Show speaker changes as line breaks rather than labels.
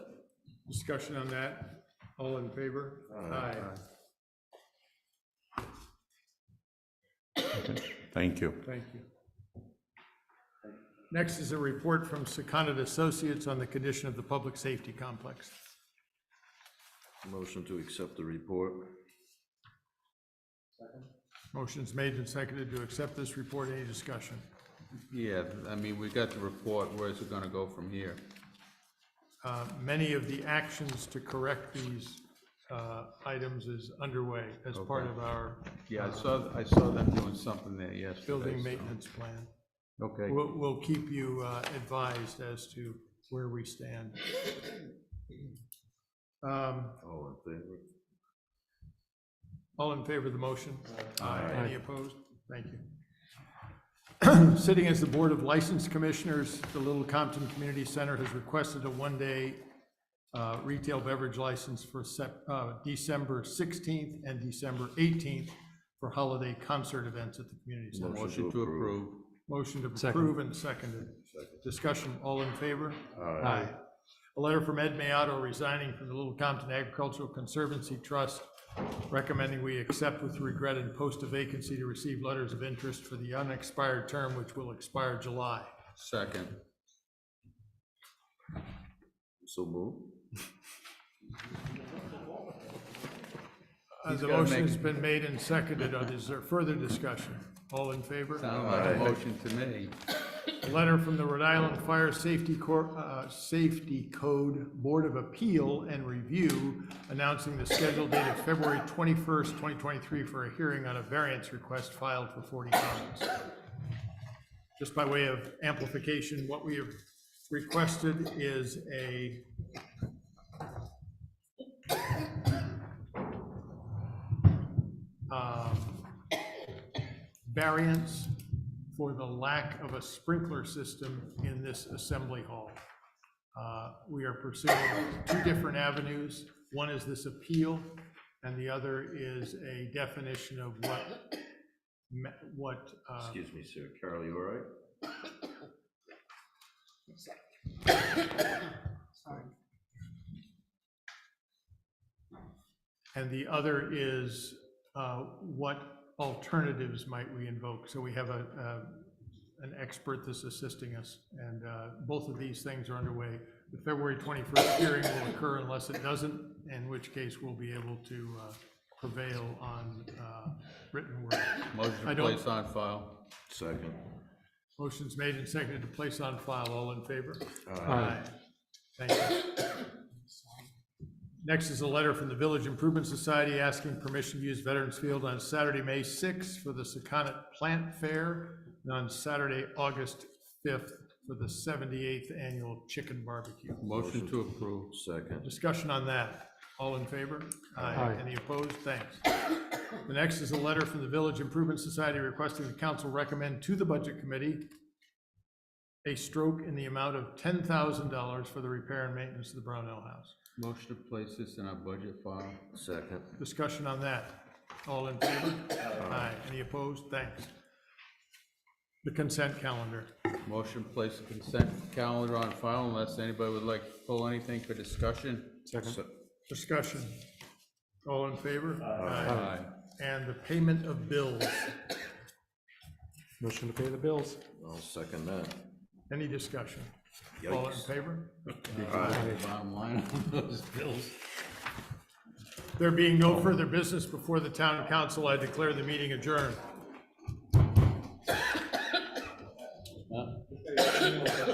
Discussion on that, all in favor? Aye.
Thank you.
Thank you. Next is a report from Secundit Associates on the condition of the public safety complex.
Motion to accept the report.
Motion's made and seconded to accept this report. Any discussion?
Yeah, I mean, we got the report, where's it gonna go from here?
Uh, Many of the actions to correct these uh, items is underway as part of our
Yeah, I saw, I saw them doing something there yesterday.
building
so-
maintenance plan.
Okay,
We'll, we'll keep you uh, advised as to where we stand. Um,
All in favor?
All in favor of the motion? Aye. Any opposed? Thank you. Sitting as the Board of License Commissioners, the Little Compton Community Center has requested a one-day uh, retail beverage license for Sep- uh, December 16th and December 18th for holiday concert events at the community center.
motion to approve.
Motion to approve and seconded. Discussion, all in favor? Aye. A letter from Ed Mayotto resigning from the Little Compton Agricultural Conservancy Trust recommending we accept with regret and post a vacancy to receive letters of interest for the unexpired term, which will expire July.
Second,
So move.
Uh, The
gotta
motion
make-
has been made and seconded. Uh, Is there further discussion? All in favor?
sounded like a motion to me.
A letter from the Rhode Island Fire Safety Cor, uh, Safety Code Board of Appeal and Review announcing the scheduled date of February twenty-first, twenty twenty-three for a hearing on a variance request filed for forty comments. Just by way of amplification, what we have requested is a um, variance for the lack of a sprinkler system in this assembly hall. Uh, We are pursuing two different avenues. One is this appeal, and the other is a definition of what, me- what, uh,
Excuse me, sir. Carl, you all right?
and the other is uh, what alternatives might we invoke? So we have a, a- an expert that's assisting us, and uh, both of these things are underway. The February 21st hearing will occur unless it doesn't, in which case we'll be able to uh, prevail on uh, written word.
Motion
I
to
don't-
place on file.
Second.
Motion's made and seconded to place on file. All in favor?
Aye.
Thank you. Next is a letter from the Village Improvement Society asking permission to use Veterans Field on Saturday, May 6th for the Secana Plant Fair, and on Saturday, August 5th for the 78th Annual Chicken Barbecue.
Motion to approve.
Second.
Discussion on that. All in favor? Aye. Any opposed? Thanks. The next is a letter from the Village Improvement Society requesting the council recommend to the Budget Committee a stroke in the amount of ten thousand dollars for the repair and maintenance of the Brownell House.
Motion to place this in our budget file.
Second.
Discussion on that. All in favor? Aye. Any opposed? Thanks. The consent calendar.
Motion to place the consent calendar on file unless anybody would like to pull anything for discussion.
Discussion. All in favor? Aye.
Aye.
And the payment of bills.
Motion to pay the bills.
I'll second that.
Any discussion? All in
Yikes.
favor?
Bottom line on those bills.
There being no further business before the town council, I declare the meeting adjourned.